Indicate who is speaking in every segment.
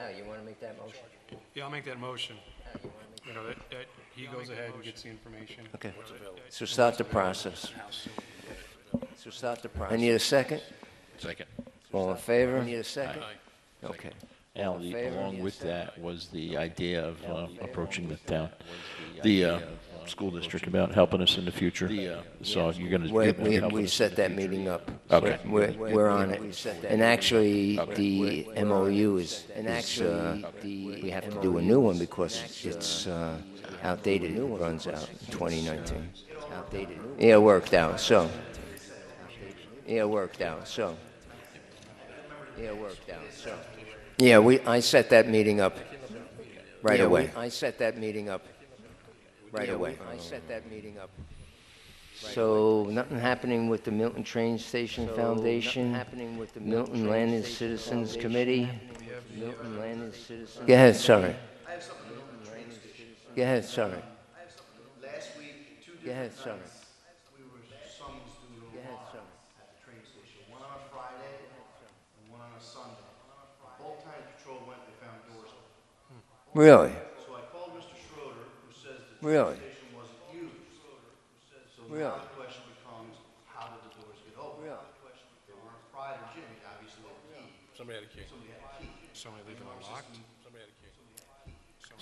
Speaker 1: Oh, you want to make that motion?
Speaker 2: Yeah, I'll make that motion,
Speaker 1: Oh, you wanna make-
Speaker 2: you know, that, that he goes ahead and gets the information.
Speaker 3: Okay.
Speaker 2: You know, that- that-
Speaker 3: So start the process. So start the process. I need a second?
Speaker 4: Second.
Speaker 3: All in favor? I need a second? Okay.
Speaker 4: Al,
Speaker 3: All in
Speaker 4: the-
Speaker 3: favor?
Speaker 4: along
Speaker 3: Yes,
Speaker 4: with
Speaker 3: sir.
Speaker 4: that was the idea of um, approaching the town, the uh, school district about helping us in the uh, future. So you're going to.
Speaker 3: We, we, we set that meeting up.
Speaker 4: Okay.
Speaker 3: We're, we're on it. And actually, the MOU is, is, uh, we have to do a new one because it's, uh, outdated. It runs out in 2019. Yeah, it worked out, so. Yeah, it worked out, so. Yeah, it worked out, so. Yeah, we, I set that meeting up right away. I set that meeting up right away. I set that meeting up so nothing happening with the Milton Train Station Foundation? happening with the Milton Landis Citizens Committee? Milton Landis Citizens. Go ahead, sorry. Go ahead, sorry. Go ahead, sorry. Go ahead, sorry.
Speaker 5: train station, one on a Friday and one on a Sunday. Both times patrol went, they found doors open.
Speaker 3: Really?
Speaker 5: So I called Mr. Schroeder, who says the
Speaker 3: Really?
Speaker 5: train station wasn't used. So
Speaker 3: Really?
Speaker 5: now the question becomes, how did the doors get open?
Speaker 3: Really?
Speaker 5: They were on Friday, Jimmy obviously had a key.
Speaker 2: Somebody had a key. Somebody leaving it locked. Somebody had a key.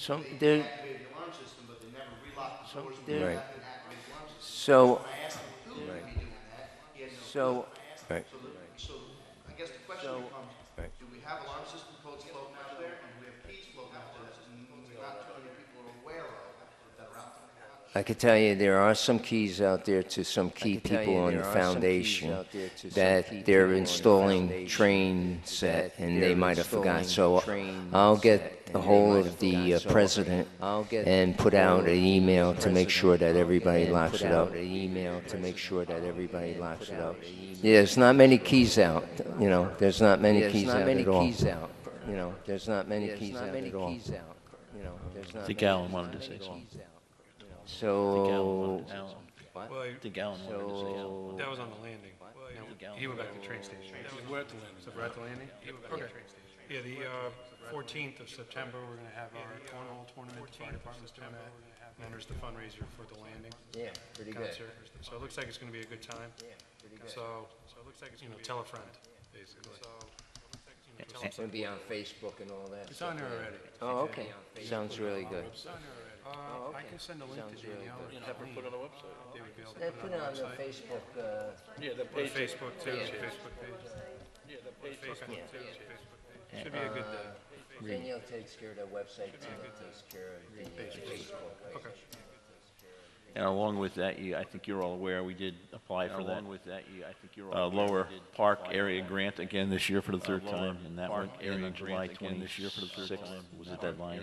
Speaker 3: Some, there,
Speaker 5: Activated the alarm system, but they never relocked the
Speaker 3: Some-
Speaker 5: doors.
Speaker 3: there-
Speaker 5: They didn't activate the alarm system.
Speaker 3: so,
Speaker 5: I asked him, who would be doing that? He had
Speaker 3: so,
Speaker 5: no So, the- so I guess the question becomes, do we have alarm system codes floating out there? And do we have keys floating out there that not too many people are aware of that are out there?
Speaker 3: I could tell you, there are some keys out there to some key people on the foundation that they're installing train set, and they might have forgot. So uh, I'll get a hold of the uh, president and put out an email to make sure that everybody locks it up. An email to make sure that everybody locks it up. Yeah, there's not many keys out, you know, there's not many keys out at all. You know, there's not many keys out at all.
Speaker 4: I think Alan wanted to say something.
Speaker 2: Well, he-
Speaker 3: So,
Speaker 4: I think Alan wanted to say something.
Speaker 2: that was on the landing. No, he went back to the train station. We're at the landing. So we're at the landing? Okay. Yeah, the uh, 14th of September, we're going to have our cornhole tournament, the fire department's doing that. And then there's the fundraiser for the landing
Speaker 3: yeah, pretty good.
Speaker 2: concert. So it looks like it's going to be a good time. So, so it looks like it's, you know, tell a friend, basically.
Speaker 3: It's gonna be on Facebook and all that.
Speaker 2: It's on there already.
Speaker 3: Oh, okay. Sounds really good.
Speaker 2: Uh, I can send a link to Danielle. Have her put on the website. They would be able to
Speaker 3: They put it on the Facebook, uh,
Speaker 2: Put Facebook too, it's a Facebook page. Facebook too, it's a Facebook page. Should be a good uh, day.
Speaker 3: Danielle takes care of the website too, and takes care of the uh, Facebook.
Speaker 2: Okay.
Speaker 4: And along with that, you, I think you're all aware, we did apply for that. Along with that, you, I think you're all. Lower Park Area Grant again this year for the third time, and that went in on July twenty-sixth was the deadline.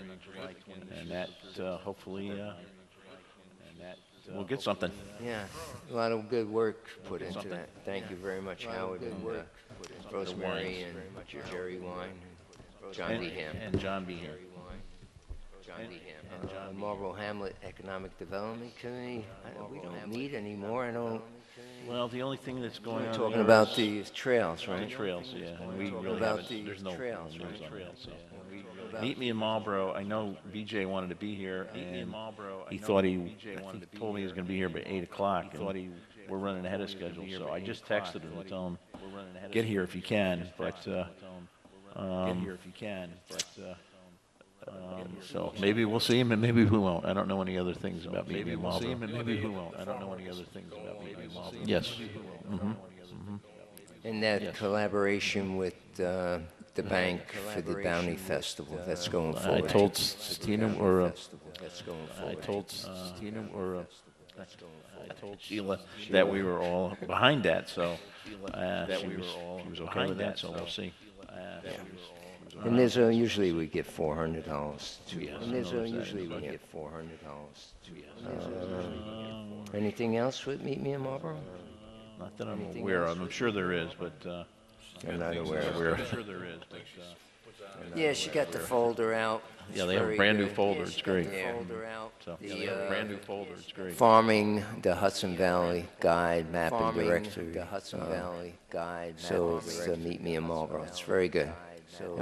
Speaker 4: And that, uh, hopefully, uh, and that, uh, we'll get something.
Speaker 3: Yeah, a lot of good work put into that. Thank you very much, Howard, and uh, Rosemary and Jerry Wine, and John
Speaker 4: And-
Speaker 3: D. Ham.
Speaker 4: And John Behan.
Speaker 3: John D. Ham. Marlboro Hamlet Economic Development Committee, I- we don't meet anymore, I don't,
Speaker 4: Well, the only thing that's going
Speaker 3: we're
Speaker 4: on.
Speaker 3: talking
Speaker 4: there
Speaker 3: about
Speaker 4: is
Speaker 3: the trails,
Speaker 4: The
Speaker 3: right?
Speaker 4: trails, yeah, and we really
Speaker 3: about
Speaker 4: haven't,
Speaker 3: the
Speaker 4: there's no.
Speaker 3: trails,
Speaker 4: no
Speaker 3: right?
Speaker 4: trails, yeah. Meet me in Marlboro, I know BJ wanted to be here, and he
Speaker 6: know
Speaker 4: thought he,
Speaker 6: BJ
Speaker 4: I
Speaker 6: wanted
Speaker 4: think
Speaker 6: to be
Speaker 4: told me he was gonna be here by eight o'clock, and we're running ahead of schedule, so I just texted him, to tell him, get here if you can, but, uh, um, get here if you can, but, uh, um, so maybe we'll see him and maybe we won't. I don't know any other things about meeting in Marlboro. Maybe we'll see him and maybe we won't. I don't know any other things about meeting in Marlboro. Yes.
Speaker 3: And that collaboration with uh, the bank for the Bounty Festival, that's going
Speaker 4: uh, I
Speaker 3: forward.
Speaker 4: told Stina, or, uh,
Speaker 3: Festival, That's going
Speaker 4: I
Speaker 3: forward.
Speaker 4: told Stina or uh, I told Sheila that we were all behind that, so uh, she was, she was okay with that, so we'll see. Uh,
Speaker 3: And there's, uh, usually we get four hundred dollars to, and there's, uh, usually we get four hundred dollars to. Anything else with Meet Me in Marlboro?
Speaker 4: Not that I'm aware of, I'm sure there is, but, uh,
Speaker 3: I'm not aware of
Speaker 4: I'm sure there is, but, uh,
Speaker 3: Yeah, she got the folder out.
Speaker 4: Yeah, they have a
Speaker 3: Very
Speaker 4: brand new
Speaker 3: good.
Speaker 4: folder.
Speaker 3: Yeah,
Speaker 4: It's
Speaker 3: she got
Speaker 4: great.
Speaker 3: the
Speaker 4: Yeah.
Speaker 3: folder out,
Speaker 4: so.
Speaker 3: the, uh,
Speaker 4: Brand new folder, it's great.
Speaker 3: Farming the Hudson Valley Guide Map and
Speaker 1: Farming
Speaker 3: Directory.
Speaker 1: the Hudson
Speaker 3: uh,
Speaker 1: Valley Guide. Map
Speaker 3: So
Speaker 1: and
Speaker 3: it's uh,
Speaker 1: Directory.
Speaker 3: Meet Me in Marlboro. It's very good.
Speaker 1: So